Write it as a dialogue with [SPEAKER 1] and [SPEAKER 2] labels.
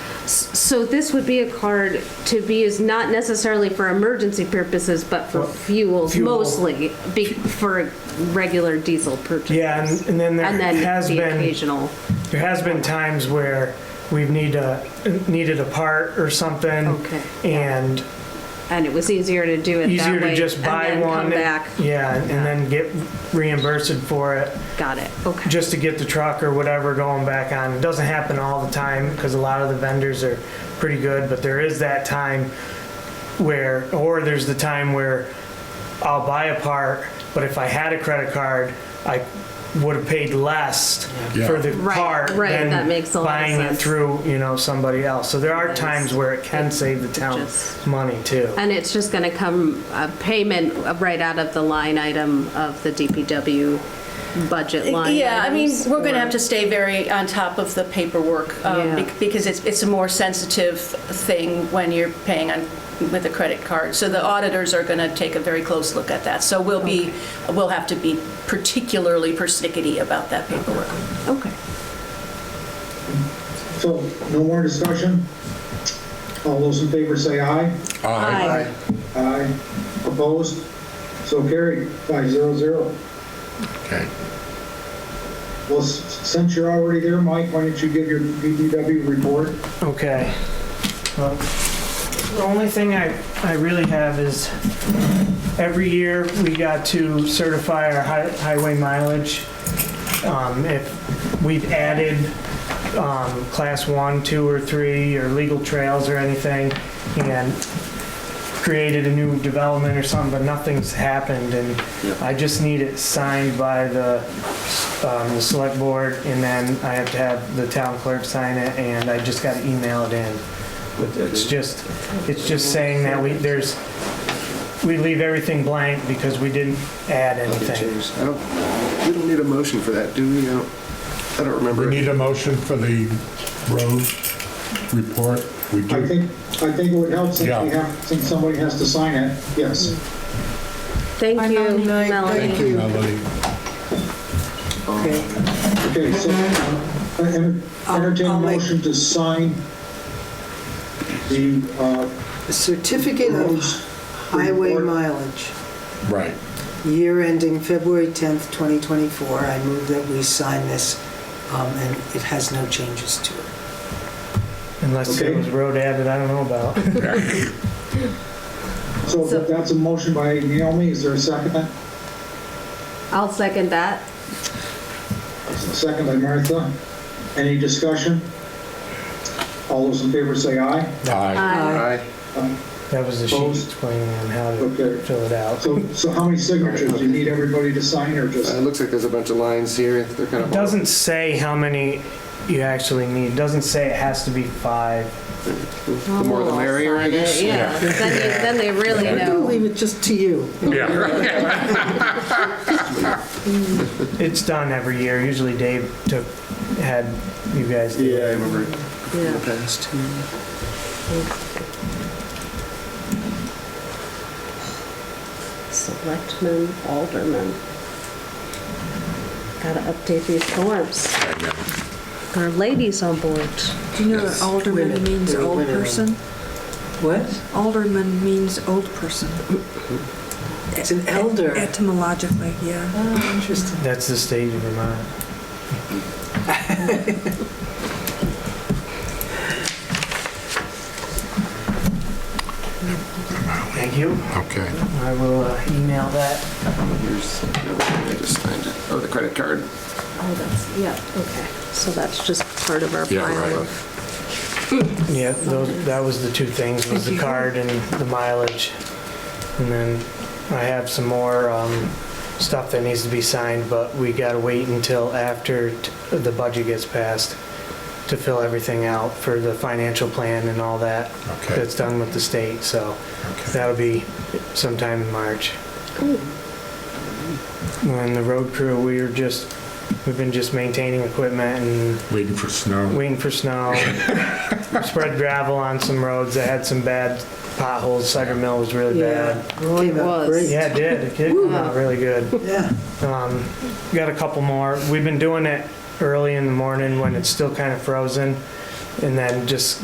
[SPEAKER 1] So this would be a card to be used not necessarily for emergency purposes, but for
[SPEAKER 2] Well,
[SPEAKER 1] fuel
[SPEAKER 2] fuel.
[SPEAKER 1] mostly, be- for regular diesel purchases.
[SPEAKER 2] Yeah, and- and then there
[SPEAKER 1] And then
[SPEAKER 2] has
[SPEAKER 1] the
[SPEAKER 2] been-
[SPEAKER 1] occasional.
[SPEAKER 2] There has been times where we've need a, needed a part or something.
[SPEAKER 1] Okay.
[SPEAKER 2] And
[SPEAKER 1] And it was easier to do it that way.
[SPEAKER 2] easier to just buy
[SPEAKER 1] And then
[SPEAKER 2] one.
[SPEAKER 1] come back.
[SPEAKER 2] Yeah, and then get reimbursed for it,
[SPEAKER 1] Got it, okay.
[SPEAKER 2] just to get the truck or whatever going back on. It doesn't happen all the time, because a lot of the vendors are pretty good, but there is that time where, or there's the time where I'll buy a part, but if I had a credit card, I would have paid less
[SPEAKER 3] Yeah.
[SPEAKER 2] for the
[SPEAKER 1] Right,
[SPEAKER 2] part
[SPEAKER 1] right,
[SPEAKER 2] than
[SPEAKER 1] that makes a lot of
[SPEAKER 2] buying it
[SPEAKER 1] sense.
[SPEAKER 2] through, you know, somebody else. So there are
[SPEAKER 1] Yes.
[SPEAKER 2] times where it can save the town
[SPEAKER 1] Just-
[SPEAKER 2] money too.
[SPEAKER 1] And it's just going to come, a payment right out of the line item of the DPW budget line
[SPEAKER 4] Yeah, I mean,
[SPEAKER 1] items,
[SPEAKER 4] we're going to
[SPEAKER 1] or-
[SPEAKER 4] have to stay very on top of the paperwork um,
[SPEAKER 1] Yeah.
[SPEAKER 4] bec- because it's, it's a more sensitive thing when you're paying on, with a credit card. So the auditors are going to take a very close look at that. So we'll be, we'll have to be particularly persnickety about that paperwork.
[SPEAKER 1] Okay.
[SPEAKER 5] So, no more discussion? All those in favor say aye.
[SPEAKER 1] Aye.
[SPEAKER 5] Aye. Opposed? So carried, five zero zero.
[SPEAKER 3] Okay.
[SPEAKER 5] Well, s- since you're already there, Mike, why don't you give your DPW report?
[SPEAKER 2] Okay. Well, The only thing I, I really have is every year we got to certify our hi- highway mileage. Um, if we've added, um, class one, two, or three, or legal trails or anything, and created a new development or something, but nothing's happened, and I just need it signed by the, um, the select board, and then I have to have the town clerk sign it, and I just gotta email it in. But It's just, it's just saying that we, there's, we leave everything blank because we didn't add anything.
[SPEAKER 6] James, I don't, we don't need a motion for that, do we? I don't- I don't
[SPEAKER 3] We
[SPEAKER 6] remember.
[SPEAKER 3] need a motion for the road report. We
[SPEAKER 5] I
[SPEAKER 3] do.
[SPEAKER 5] think, I think it would help since we
[SPEAKER 3] Yeah.
[SPEAKER 5] have, since somebody has to sign it, yes.
[SPEAKER 1] Thank you,
[SPEAKER 3] Thank
[SPEAKER 1] Melanie.
[SPEAKER 3] you, Melody.
[SPEAKER 5] Okay, so, I enter- entertain a
[SPEAKER 7] I'll make-
[SPEAKER 5] motion to sign the, uh,
[SPEAKER 7] Certificate of
[SPEAKER 5] roads
[SPEAKER 7] highway
[SPEAKER 5] report.
[SPEAKER 7] mileage,
[SPEAKER 3] Right.
[SPEAKER 7] year ending February 10th, 2024. I move that we sign this, um, and it has no changes to it.
[SPEAKER 2] Unless there
[SPEAKER 5] Okay.
[SPEAKER 2] was road added, I don't know about.
[SPEAKER 5] So
[SPEAKER 1] So-
[SPEAKER 5] that's a motion by Naomi, is there a second?
[SPEAKER 1] I'll second that.
[SPEAKER 5] Second by Martha. Any discussion? All those in favor say aye.
[SPEAKER 3] Aye.
[SPEAKER 6] Aye.
[SPEAKER 2] That was the sheet
[SPEAKER 5] Opposed?
[SPEAKER 2] explaining on how to
[SPEAKER 5] Okay.
[SPEAKER 2] fill it out.
[SPEAKER 5] So, so how many signatures? Do you need everybody to sign or
[SPEAKER 6] Uh,
[SPEAKER 5] just?
[SPEAKER 6] It looks like there's a bunch of lines here, they're kind
[SPEAKER 2] It
[SPEAKER 6] of.
[SPEAKER 2] doesn't say how many you actually need. It doesn't say it has to be five.
[SPEAKER 6] The more the merrier, I guess.
[SPEAKER 1] Oh, Yeah, then you- then they really
[SPEAKER 7] I'm going to
[SPEAKER 1] know.
[SPEAKER 7] leave it just to you.
[SPEAKER 2] It's done every year. Usually Dave took, had you guys do
[SPEAKER 6] Yeah, I
[SPEAKER 2] it.
[SPEAKER 6] remember in the
[SPEAKER 1] Yeah.
[SPEAKER 6] past.
[SPEAKER 1] Selectmen, aldermen. Gotta update these forms. Our ladies on board.
[SPEAKER 8] Do you know that
[SPEAKER 7] Women.
[SPEAKER 8] alderman means
[SPEAKER 7] They're
[SPEAKER 8] old
[SPEAKER 7] women.
[SPEAKER 8] person?
[SPEAKER 7] What?
[SPEAKER 8] Alderman means old person.
[SPEAKER 7] It's an elder.
[SPEAKER 8] Etymologically, yeah.
[SPEAKER 7] Oh, Interesting.
[SPEAKER 2] That's the state of Vermont. Thank you.
[SPEAKER 3] Okay.
[SPEAKER 2] I will uh, email that.
[SPEAKER 6] Here's, I just signed it. Oh, the credit card.
[SPEAKER 1] Oh, that's, yeah, okay. So that's just part of our
[SPEAKER 3] Yeah, right.
[SPEAKER 1] pile of.
[SPEAKER 2] Yeah, those, that was the two things, was the card and the mileage. And then I have some more, um, stuff that needs to be signed, but we gotta wait until after t- the budget gets passed to fill everything out for the financial plan and all that
[SPEAKER 3] Okay.
[SPEAKER 2] that's done with the state, so that'll be sometime in March. And the road crew, we are just, we've been just maintaining equipment and
[SPEAKER 3] Waiting for snow.
[SPEAKER 2] waiting for snow, spread gravel on some roads that had some bad potholes. Sugar Mill was really
[SPEAKER 7] Yeah.
[SPEAKER 2] bad.
[SPEAKER 7] Well,
[SPEAKER 1] It was.
[SPEAKER 2] Yeah, it did. It did come out really good.
[SPEAKER 7] Yeah.
[SPEAKER 2] Um, got a couple more. We've been doing it early in the morning when it's still kind of frozen, and then just